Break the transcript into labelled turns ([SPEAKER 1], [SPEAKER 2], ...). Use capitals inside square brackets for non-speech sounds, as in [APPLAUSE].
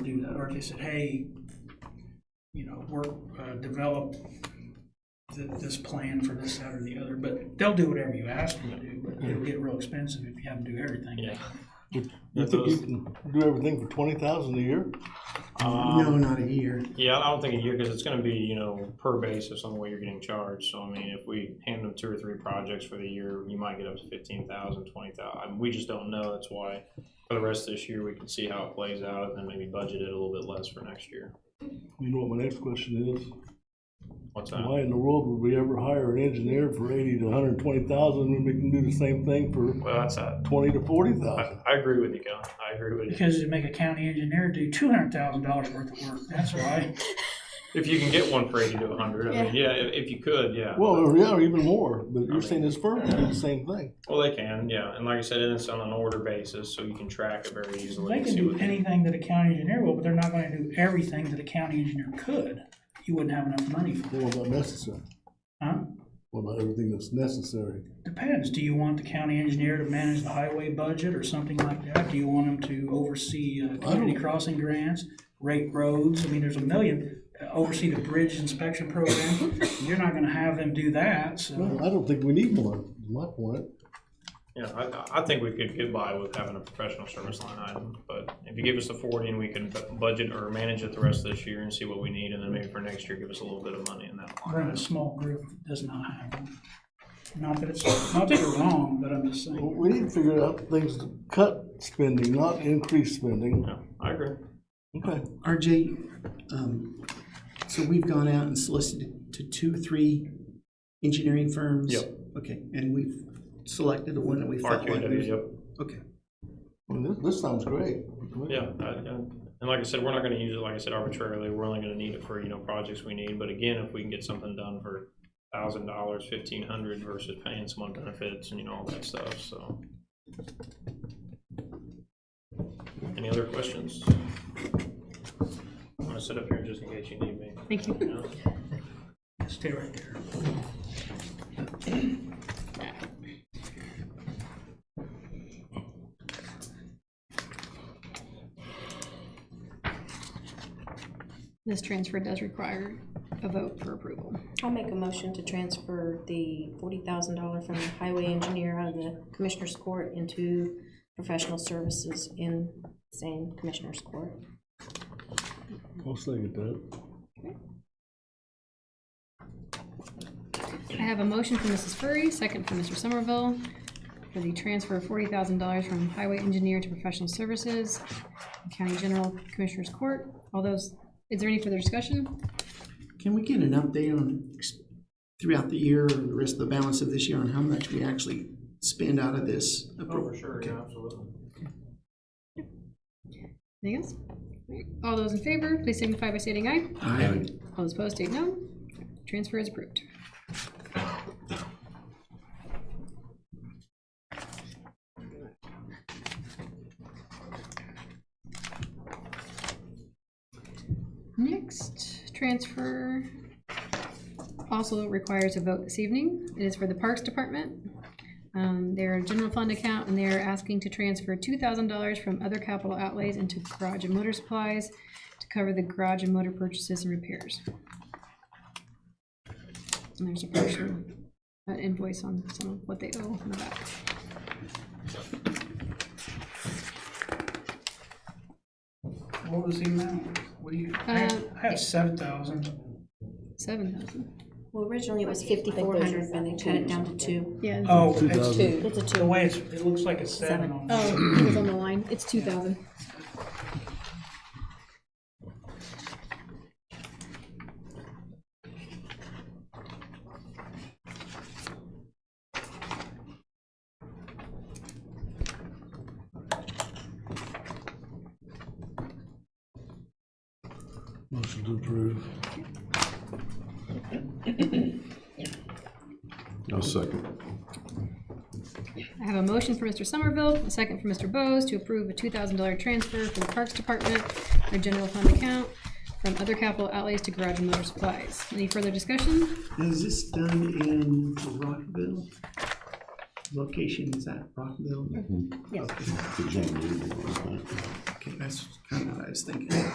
[SPEAKER 1] Network, they said, hey, you know, work, uh, develop th- this plan for this, that, or the other, but they'll do whatever you ask them to do, but it'll get real expensive if you have them do everything.
[SPEAKER 2] Yeah.
[SPEAKER 3] You think you can do everything for twenty thousand a year?
[SPEAKER 4] No,
[SPEAKER 1] Um,
[SPEAKER 4] not a year.
[SPEAKER 2] Um, Yeah, I don't think a year, because it's gonna be, you know, per basis on what you're getting charged, so I mean, if we hand them two or three projects for the year, you might get up to fifteen thousand, twenty thousand, we just don't know, that's why. For the rest of this year, we can see how it plays out, and then maybe budget it a little bit less for next year,
[SPEAKER 3] You know what my next question is?
[SPEAKER 2] what's that?
[SPEAKER 3] Why in the world would we ever hire an engineer for eighty to hundred and twenty thousand when we can do the same thing for
[SPEAKER 2] Well, that's that,
[SPEAKER 3] twenty to forty thousand?
[SPEAKER 2] I, I agree with you, Kevin, I agree with you,
[SPEAKER 1] Because to make a county engineer do two hundred thousand dollars worth of work, that's
[SPEAKER 2] [LAUGHS]
[SPEAKER 1] why.
[SPEAKER 2] if you can get one for eighty to a hundred, I mean, yeah, if, if you could, yeah.
[SPEAKER 3] Well, or yeah, or even more, but you're saying this firm will do the same thing.
[SPEAKER 2] Well, they can, yeah, and like I said, and it's on an order basis, so you can track it very easily.
[SPEAKER 1] They
[SPEAKER 2] and
[SPEAKER 1] can
[SPEAKER 2] see
[SPEAKER 1] do
[SPEAKER 2] what-
[SPEAKER 1] anything that a county engineer will, but they're not gonna do everything that a county engineer could. You wouldn't have enough money for, it,
[SPEAKER 3] What about necessary?
[SPEAKER 1] huh?
[SPEAKER 3] What about everything that's necessary?
[SPEAKER 1] Depends, do you want the county engineer to manage the highway budget or something like that? Do you want him to oversee uh, community crossing grants, rate roads? I mean, there's a million, Uh, oversee the bridge inspection program. You're not gonna have them do that, so.
[SPEAKER 3] Well, I don't think we need one, is my point.
[SPEAKER 2] Yeah, I, I think we could get by with having a professional service line item, but if you give us the forty and we can bu- budget or manage it the rest of this year and see what we need, and then maybe for next year, give us a little bit of money in that line.
[SPEAKER 1] We're in a small group that does not have them. Not that it's, not that you're wrong, but I'm just saying.
[SPEAKER 3] Well, We need to figure out things to cut spending, not increase spending.
[SPEAKER 2] Yeah, I agree.
[SPEAKER 3] Okay.
[SPEAKER 4] RJ, um, so we've gone out and solicited to two, three engineering firms?
[SPEAKER 2] Yep.
[SPEAKER 4] Okay, and we've selected the one that we felt like.
[SPEAKER 2] RQW,
[SPEAKER 4] was-
[SPEAKER 2] yep.
[SPEAKER 4] Okay,
[SPEAKER 3] I mean, this, this sounds great.
[SPEAKER 2] Yeah, I- I- and like I said, we're not gonna use it, like I said, arbitrarily, we're only gonna need it for, you know, projects we need, but again, if we can get something done for thousand dollars, fifteen hundred versus paying someone benefits and, you know, all that stuff, so. Any other questions? I'm gonna sit up here just in case you need me. Thank you.
[SPEAKER 1] Stay right there.
[SPEAKER 5] This transfer does require a vote for approval.
[SPEAKER 6] I'll make a motion to transfer the forty thousand dollar from the highway engineer out of the commissioner's court into professional services in same commissioner's court.
[SPEAKER 3] I'll second that.
[SPEAKER 5] I have a motion from Mrs. Furry, second from Mr. Somerville, for the transfer of forty thousand dollars from highway engineer to professional services, county general commissioners court. All those, is there any further discussion?
[SPEAKER 4] can we get an update on, ex- throughout the year or the rest of the balance of this year on how much we actually spend out of this?
[SPEAKER 2] Oh, for sure, yeah, absolutely.
[SPEAKER 5] Anything else? All those in favor, please signify by stating aye.
[SPEAKER 4] Aye.
[SPEAKER 5] All those opposed, state no. Transfer is approved. Next, transfer also requires a vote this evening. It is for the Parks Department. Um, Their general fund account, and they're asking to transfer two thousand dollars from other capital outlays into garage and motor supplies to cover the garage and motor purchases and repairs. And there's a partial uh, invoice on some of what they owe in the back.
[SPEAKER 1] What was the amount? What do you, I
[SPEAKER 5] Uh,
[SPEAKER 1] have, I have seven thousand.
[SPEAKER 5] Seven thousand.
[SPEAKER 6] Well, originally it was fifty-four hundred, but they cut it down to two.
[SPEAKER 5] Yeah.
[SPEAKER 1] Oh,
[SPEAKER 3] Two
[SPEAKER 1] it's,
[SPEAKER 3] thousand.
[SPEAKER 6] It's a
[SPEAKER 1] the
[SPEAKER 6] two.
[SPEAKER 1] way it's, it looks like it's seven on. there.
[SPEAKER 5] Oh, it was on the line. It's two thousand.
[SPEAKER 3] Motion to approve.
[SPEAKER 7] I'll second.
[SPEAKER 5] I have a motion for Mr. Somerville, a second for Mr. Bose to approve a two thousand dollar transfer from the Parks Department, their general fund account, from other capital outlays to garage and motor supplies. Any further discussion?
[SPEAKER 4] Is this done in Rockville? Location is at Rockville?
[SPEAKER 7] The John Lee one, I think.
[SPEAKER 4] Okay, that's kind of what I was thinking.